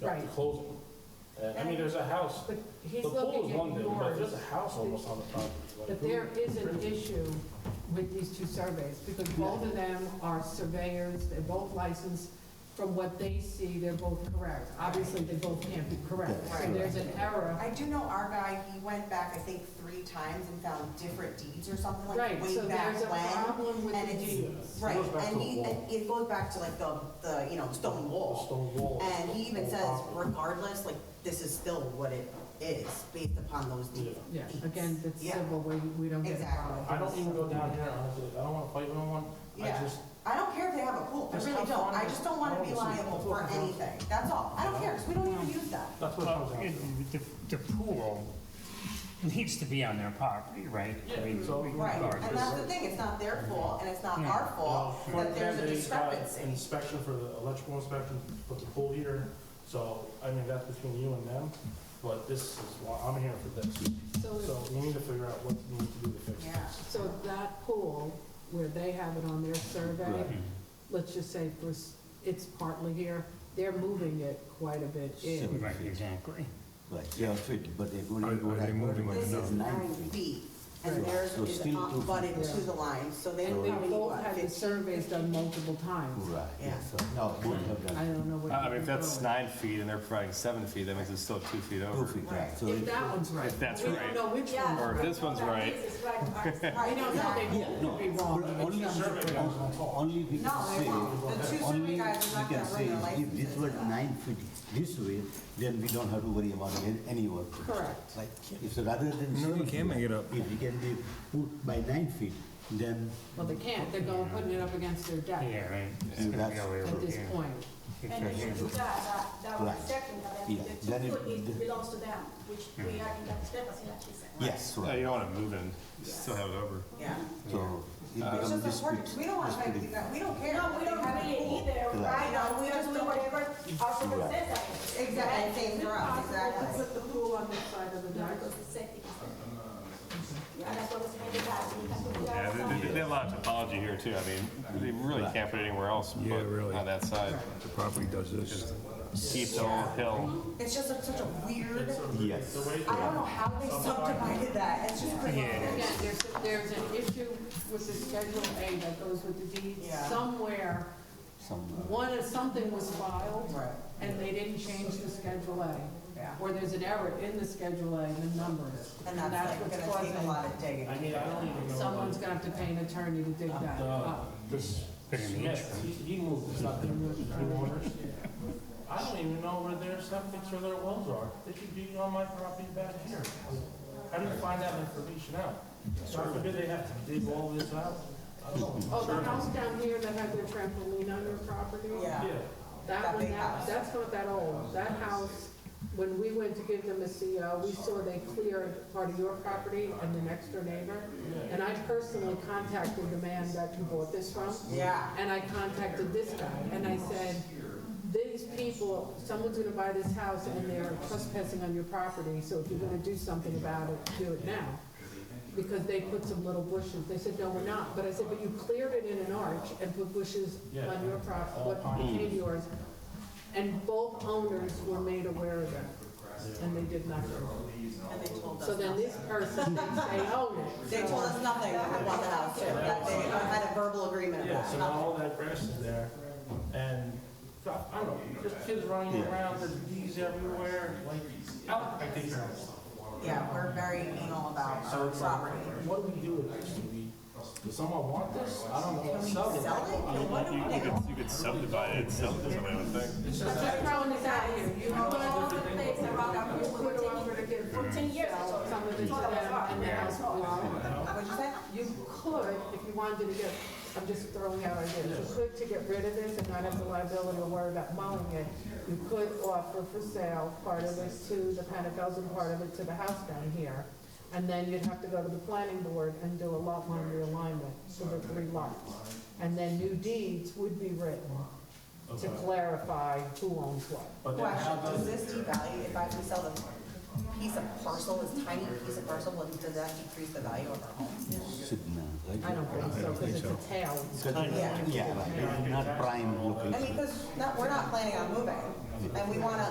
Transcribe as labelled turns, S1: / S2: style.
S1: you have to
S2: Right.
S1: close them. And, I mean, there's a house,
S2: But
S1: the
S2: he's
S1: pool
S2: looking
S1: is one
S2: at
S1: thing, but there's a
S2: yours.
S1: house almost on the property. like,
S2: But there
S1: who-
S2: is an issue with these two surveys, because both of them are surveyors, they're both licensed. From what they see, they're both correct. Obviously, they both can't be correct. So
S3: Right.
S2: there's an error.
S3: I do know our guy, he went back, I think, three times and found different deeds or something like
S2: Right,
S3: way
S2: so
S3: back
S2: there's a
S3: when.
S2: problem with
S3: and
S2: the
S3: it's-
S2: deeds.
S3: Right,
S1: It goes back
S3: and
S1: to the
S3: he,
S1: wall.
S3: and it goes back to like the, the, you know, stone
S1: The
S3: wall.
S1: stone wall.
S3: And he even
S1: the
S3: says
S1: property.
S3: regardless, like, this is still what it is based upon those deeds.
S1: Yeah.
S2: Yeah, again, that's
S3: Yeah.
S2: civil, we, we don't get
S3: Exactly.
S2: involved.
S1: I don't even go down here, honestly, I don't wanna fight with no one, I
S3: Yeah.
S1: just,
S3: I don't care if they have a pool, I
S1: Just
S3: really
S1: have
S3: don't,
S1: fun
S3: I
S1: with-
S3: just don't wanna be
S1: obviously,
S3: liable
S1: that's
S3: for
S1: what it comes to.
S3: anything, that's all, I don't care, cause we don't even use that.
S1: that's what it comes
S4: Well,
S1: down
S4: it-
S1: to.
S4: the, the pool needs to be on their property, right? I
S1: Yeah,
S4: mean,
S1: so-
S3: Right, and
S4: regardless.
S3: that's the thing, it's not their fault, and it's not
S4: Yeah.
S3: our fault,
S1: Mark
S3: that there's a
S1: Mandy's got
S3: discrepancy.
S1: Inspection for the electrical inspection for the pool heater, so, I mean, that's between you and them, but this is why, I'm here for this.
S2: So if
S1: So we need to figure out what we need to do to fix
S3: Yeah.
S1: this.
S2: So that pool, where they have it on their survey,
S4: Mhm.
S2: let's just say for s- it's partly here, they're moving it quite a bit in.
S4: Hmm. Right, exactly.
S5: Right, yeah, fit, but they're going
S6: Are-
S5: to go
S6: are they
S5: like,
S6: moving
S5: what,
S6: it
S3: This
S5: this
S6: now?
S3: is
S5: is
S3: nine
S5: nine feet.
S3: feet, and
S2: Right.
S3: theirs
S5: So
S3: is
S5: still two
S3: abutted
S2: feet.
S3: to the line, so they
S2: And
S3: would
S2: we
S3: be,
S2: both
S3: what,
S2: had the
S3: 15?
S2: surveys done multiple times.
S5: Right,
S3: Yeah.
S5: yes, so, no, both have
S2: I
S5: done
S2: don't know what.
S6: Uh, I mean, if that's
S2: you're
S6: nine feet and they're providing seven feet, that means it's still two feet
S5: two
S6: over.
S5: feet, right, so
S2: doing. If
S5: it,
S2: that one's right.
S6: If that's
S2: We
S6: right.
S2: don't know which
S7: Yeah.
S2: one.
S6: Or if this one's right.
S2: We
S3: Right,
S2: don't know, they
S3: exactly.
S2: could be wrong.
S5: but only, on- only we
S3: No,
S5: can
S3: they
S5: say,
S3: won't. The two survey
S5: only we
S3: guys are not
S5: can
S3: gonna
S5: say,
S3: run their
S5: if this
S3: licenses
S5: were
S3: for that.
S5: nine feet this way, then we don't have to worry about an- any work.
S2: Correct.
S5: Right, if, so rather than.
S6: No, you
S5: six
S6: can't
S5: feet,
S6: make it up.
S5: If it can be put by nine feet, then
S2: Well, they can't, they're going, putting it up against their deck
S4: Yeah, right. It's
S5: Yeah,
S4: gonna be
S5: that's-
S4: all the way
S2: at
S4: over
S2: this
S4: here.
S2: point.
S4: It's
S7: And
S4: right here.
S7: if you do that, that, that was
S5: Right.
S7: second, but then
S5: Yeah,
S7: the
S5: then
S7: two
S5: it-
S7: foot it
S5: the-
S7: belongs to them, which we are in that discrepancy, like you said.
S5: yes,
S6: Yeah,
S5: right,
S6: You don't want to move in, you still have it over.
S3: Yeah.
S5: so it
S3: It's
S5: becomes
S3: just important,
S5: dispute.
S3: we don't want to fight these
S5: dispute.
S3: guys, we don't care.
S7: No,
S3: if
S7: we
S3: they
S7: don't
S3: have a
S7: really
S3: pool.
S7: either,
S5: Right.
S7: right now, we just do whatever our super
S5: Right.
S7: says that is.
S3: Exactly,
S7: Right?
S3: same for us,
S7: It's possible
S3: exactly.
S7: to
S2: Put the pool on the side of the
S7: No,
S2: deck.
S7: because the safety concern. Yeah, that's what was made the last, we can put it
S6: Yeah, they-
S7: outside.
S6: they, they have a lot of topology here too, I mean, they really can't put it anywhere else
S8: Yeah,
S6: but
S8: really.
S6: on that side.
S8: The property does this.
S6: Steep hill, hill.
S3: It's just a- such a weird,
S5: Yes.
S1: The way-
S3: I don't know how they subdivided that, it's just crazy.
S2: Again, there's, there's an issue with the Schedule A that goes with the deed.
S3: Yeah.
S2: Somewhere,
S5: uh,
S2: one, of- something was filed,
S3: Right.
S2: and they didn't change the Schedule A.
S3: Yeah.
S2: Or there's an error in the Schedule A and the numbers.
S3: And that's like,
S2: what's
S3: gonna take a
S2: causing-
S3: lot of digging.
S1: I mean, I don't even know.
S2: Someone's gonna have to pay an attorney to dig that
S1: Uh,
S2: up.
S1: This Smith, he- he moved, it's not their their owners. I don't even know where their septics or their wells are. They should be on my property back here. How do you find that information out? God forbid they have to dig all this out. I don't know.
S2: Oh, the house down here that had their trampoline on their property?
S3: Yeah.
S1: Yeah.
S2: That
S3: That
S2: one,
S3: big
S2: that,
S3: house.
S2: that's not that old. That house, when we went to give them a CO, we saw they cleared part of your property and the next door neighbor. And I personally contacted the man that you bought this from.
S3: Yeah.
S2: And I contacted this guy, and I said, these people, someone's gonna buy this house and they're trespassing on your property, so if you're gonna do something about it, do it now. Because they put some little bushes, they said, no, we're not, but I said, but you cleared it in an arch and put bushes on your property, what became yours. And both owners were made aware of that, and they did nothing.
S3: And they told us.
S2: So then this person "Oh, thinks they own it.
S3: They told us nothing about the house, too, that they had a verbal agreement
S1: Yeah,
S3: about
S1: so
S3: it.
S1: now all that grass is there, and, God, I don't know, just kids running around, there's bees everywhere, like, out, I think.
S3: Yeah, we're very anal about
S1: So
S3: our
S1: it's like,
S3: property.
S1: what do we do with this? Do we, does someone want this? I don't
S3: Can
S1: know,
S3: we
S1: sell
S3: sell it?
S1: it.
S3: Can what do
S6: You
S3: we
S6: you
S3: do?
S6: could, you could subdivide it, sell it to somebody, I would think.
S7: But just
S2: throwing this out here. You
S7: You
S2: know,
S7: know, all the things around our
S2: It was
S7: people,
S2: put over to
S7: ten
S2: give
S7: years, ten years ago.
S2: some of it to
S7: It's all
S2: them
S7: about-
S2: and the house belonged.
S3: What'd you say?
S2: You could, if you wanted to get, I'm just throwing out ideas, you could to get rid of this and not have the liability or worry about mowing it. You could offer for sale part of this to the Penacles and part of it to the house down here. And then you'd have to go to the planning board and do a lot line realignment for the three lots. And then new deeds would be written to
S1: Okay.
S2: clarify who owns what.
S1: But then how
S3: Well, does
S1: does,
S3: this devalue, if I can sell this piece of parcel, this tiny piece of parcel, will- does that decrease the value of our home?
S5: Signal, right?
S2: I don't think so, because it's a tail.
S3: Yeah.
S5: Yeah, right, not prime location.
S3: I mean, because we're not planning on moving, and we want to